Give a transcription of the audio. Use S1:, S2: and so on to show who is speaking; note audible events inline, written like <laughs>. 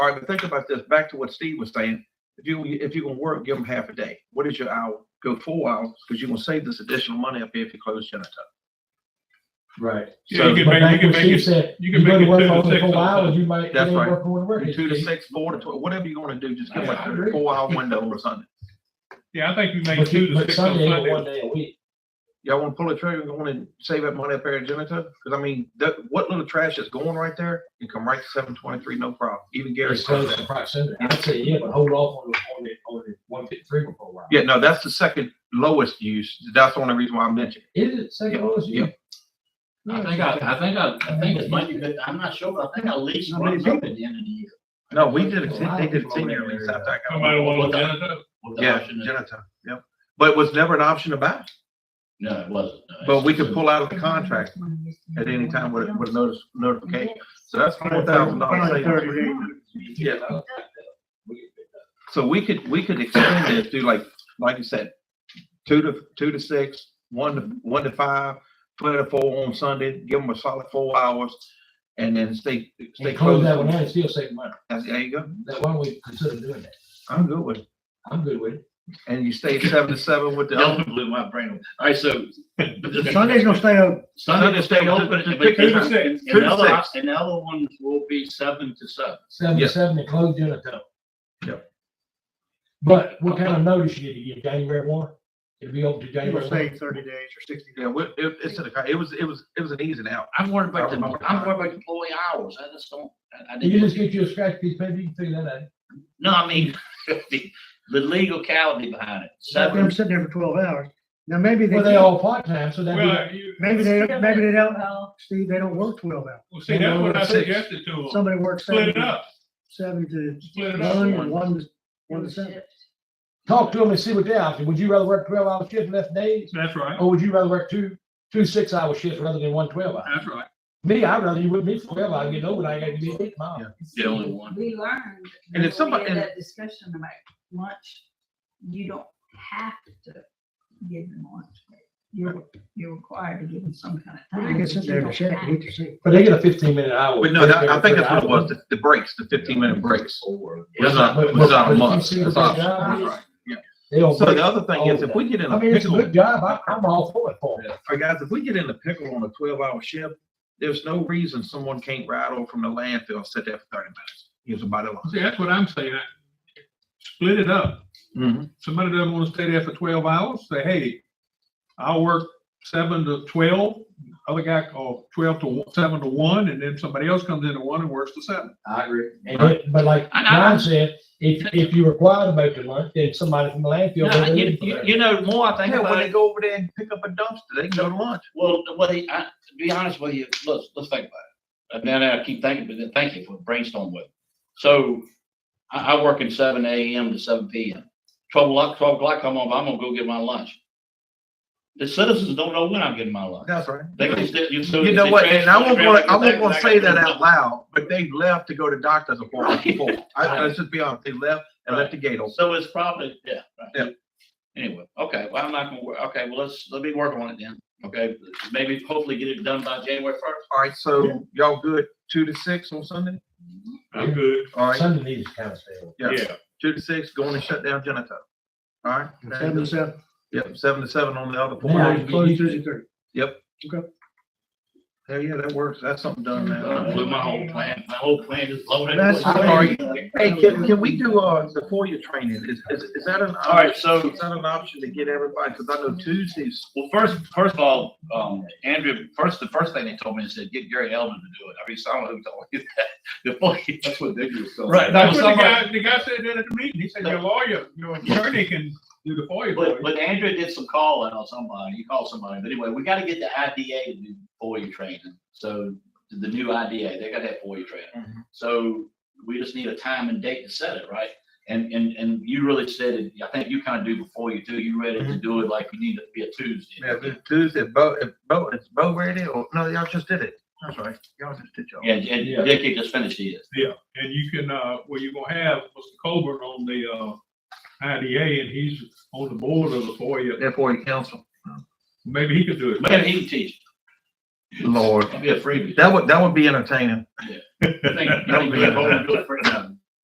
S1: All right, but think about this. Back to what Steve was saying. If you if you're gonna work, give them half a day. What is your hour? Go four hours because you're gonna save this additional money up here if you close Genitup.
S2: Right.
S3: Yeah, you
S1: So
S3: can
S2: But
S3: make, you
S2: like
S3: can
S2: what
S3: make
S2: Steve
S3: it,
S2: said,
S3: you
S2: you
S3: can
S2: go
S3: make
S2: to
S3: it
S2: work
S3: two to
S2: only
S3: six.
S2: four hours,
S3: sometimes.
S2: you might, you
S1: That's
S2: ain't
S1: right.
S2: working with work.
S1: from two to
S2: It's-
S1: six, four to twelve, whatever you're gonna do, just give
S2: Yeah,
S1: them
S2: I
S1: a
S2: agree.
S1: four hour window on Sunday.
S3: Yeah, I think you make
S2: But
S3: two
S2: you,
S3: to
S2: but
S3: six on
S2: Sunday ain't but one
S3: Sunday.
S2: day a week.
S1: Y'all wanna pull a trigger, you wanna save that money up here at Genitup? Cause I mean, that, what little trash is going right there, you come right to seven twenty-three, no problem. Even Gary
S2: It's
S1: says
S2: close to
S1: that.
S2: proximity. I'd say, yeah, but hold off on the, on the, on the one fifty-three for a while.
S1: Yeah, no, that's the second lowest use. That's the only reason why I mentioned.
S2: Is it second lowest?
S1: Yeah.
S4: I think I, I think I, I think it's might be, good. I'm not sure, but I think I leased
S1: How
S4: one
S1: many
S4: up at the end of the year.
S1: it. No, we did, a
S2: Well,
S1: ten-
S2: I
S1: they
S2: don't
S1: did a
S2: follow that
S1: ten-year lease
S2: area.
S1: after I got.
S3: Somebody want
S4: What
S3: to
S4: the-
S3: janitor?
S4: with the
S1: Yeah,
S4: option of-
S1: Genito, yep. But it was never an option about, it.
S4: No, it wasn't. No,
S1: but
S4: it's-
S1: we could pull out of the contract at any time with, with a notice, notification. So that's four thousand dollars. Yeah. So we could, we could extend this, do like, like you said, two to, two to six, one to, one to five, three to four on Sunday, give them a solid four hours. And then stay, stay
S2: And close
S1: close.
S2: that one out, and still save money.
S1: There you go.
S2: That why don't we consider doing that?
S1: I'm good with it.
S2: I'm good with it.
S1: And you stay seven to seven
S4: <laughs>
S1: with the.
S4: Y'all blew my brain. All right, <laughs> so. but the-
S5: Sunday's gonna stay open.
S4: Sunday
S1: Sunday stay
S4: stay open.
S1: open
S4: but-
S1: to
S3: Two to
S1: pick
S4: And
S3: six.
S1: Two
S4: the
S1: to
S4: other,
S1: six.
S4: and the other ones will be seven to seven.
S2: Seven
S1: Yeah.
S2: to seven and close during the time.
S1: Yep.
S2: But what kind of notice you need to give? January one? It'll be open to
S5: You
S2: January one.
S5: were saying thirty days or sixty days.
S1: Yeah, we- it, it's, in the con- it was, it was, it was an easy out.
S4: I'm worried about the, I'm worried
S1: Probably.
S4: about the employee hours. I just don't, I, I
S2: You
S4: didn't.
S2: just get you a scratch piece, maybe you can figure that out.
S4: No, I mean, <laughs> the, the legality behind it.
S5: Let them
S4: Seven,
S5: sitting there for twelve hours. Now, maybe they,
S2: Well, they all part-time, so that'd
S3: Well, you,
S5: maybe they, maybe they don't, Steve, they don't work twelve hours.
S3: well, see, that's what I
S1: Six.
S3: suggested to them.
S5: Somebody works
S3: Split
S5: seven,
S3: it up,
S5: seven to
S3: split it
S5: nine, or
S3: up.
S5: one to, one to seven.
S2: be, talk to them and see what their option. Would you rather work twelve hour shift less days?
S3: That's right.
S2: Or would you rather work two, two six-hour shifts rather than one 12 hour?
S3: That's right.
S2: Me, I'd rather you with me twelve hour, get over, I gotta be eight miles.
S4: the only one.
S6: We learned.
S1: And if
S6: when we
S1: somebody-
S6: had
S1: and-
S6: That discussion about lunch, you don't have to give them lunch. You're, you're required to give them some kind of
S5: They
S6: time.
S5: can
S6: but
S5: sit
S6: you
S5: there
S6: don't
S5: and check
S6: have
S5: and eat their seat.
S2: But they get a fifteen minute hour.
S1: But no, that, I think that's what it
S2: Hour.
S1: was, the, the breaks, the fifteen minute breaks.
S4: Or.
S1: It's not,
S2: But-
S1: it's not
S2: but
S1: a
S2: you
S1: month.
S2: see what
S1: It's
S2: their
S1: optional.
S2: job is?
S1: That's right.
S2: They don't
S1: So
S2: break.
S1: the other thing is, if we get in
S2: I
S1: a
S2: mean, it's a
S1: pickle,
S2: good job. I, I'm all for it for 'em.
S1: All right, guys, if we get in a pickle on a twelve hour shift, there's no reason someone can't ride over from the landfill, and sit there for thirty minutes, use a body
S2: Oh.
S3: See, that's what I'm saying. I- Split it up.
S4: Mm-hmm.
S1: lock.
S3: somebody doesn't want to stay there for twelve hours, say, hey, I'll work seven to twelve, other guy called twelve to one- seven to one, and then somebody else comes in at one and works to seven.
S2: I agree. And it, but like
S4: I know.
S2: Ron said, if, if you require to make the lunch, then somebody from the landfill.
S4: No,
S2: will
S4: you,
S2: leave for
S4: you,
S2: that.
S4: you know, the more I think
S1: Yeah, when
S4: about
S1: they
S4: it,
S1: go over there and pick up a dumpster, they can go to lunch.
S4: well, the way, I, to be honest with you, let's, let's think about it. And then I keep thinking, but then thank you for brainstorming with. me. So I, I work in seven AM to seven PM. Twelve o'clock, twelve o'clock, come on, I'm gonna go get my lunch. The citizens don't know when I'm getting my lunch.
S1: That's right.
S4: They just, you. so
S1: You
S4: if
S1: know
S4: they
S1: what,
S4: trash
S1: and I
S4: my
S1: won't
S4: trailer,
S1: wanna, I won't
S4: get
S1: wanna
S4: back,
S1: say
S4: I gotta
S1: that
S4: go.
S1: out loud, but they left to go to doctor's appointment before. I, let's just be honest, they left and left the gate open.
S4: So it's probably, yeah. right.
S1: Yeah.
S4: Anyway, okay, well, I'm not gonna, wor- okay, well, let's, let me work on it then, okay? Maybe hopefully get it done by January first.
S1: All right, so y'all good, two to six on Sunday?
S3: I'm good.
S1: All right,
S2: Sunday needs to kind of stay. open.
S1: yeah, two to six, going and shut down Genito. All right?
S5: Seven to seven,
S1: Yep, seven to seven on the other
S2: Yeah.
S1: four.
S5: close- close Tuesday, Thursday.
S1: Yeah, yeah, that works. That's something done
S4: I
S1: now.
S4: Uh, blew my whole plan, my whole plan is blown.
S5: That's
S1: sorry.
S4: All
S1: Hey, can, can we do, uh, the four-year training? Is, is, is that an?
S4: right, so,
S1: Is that an option to get everybody? Cause I know Tuesdays.
S4: well, first, first of all, um, Andrew, first, the first thing they told me is said, get Gary Elvin to do it. I mean, someone who told me that. <laughs> before he-
S7: That's what they do. so-
S4: Right, that
S3: That's
S4: was
S3: what the
S4: somebody,
S3: guy, the guy said that at the meeting. He said, your lawyer, your attorney can do the FOIA for
S4: but,
S3: you.
S4: but Andrew did some call out on somebody, he called somebody, but anyway, we gotta get the IDA to do FOIA training. So the new IDA, they gotta have FOIA training. So we just need a time and date to set it, right? And, and, and you really said it, I think you kind of do before you do, you ready to do it like you need it to be a Tuesday.
S1: Yeah, the Tuesday, Bo, if Bo, it's Bo ready or, no, y'all just did it. That's right. Y'all just did y'all.
S4: Yeah, and Dickie just finished his.
S3: And you can, uh, well, you're gonna have Mr. Coburn on the, uh, IDA, and he's on the board of the FOIA.
S1: Therefore, you counsel.
S3: Maybe he could do it.
S4: Man, he can teach,
S1: Lord,
S4: He'll be a freebie.
S1: that would, that would be entertaining.
S4: <laughs> You think- you think we have all the good for- no,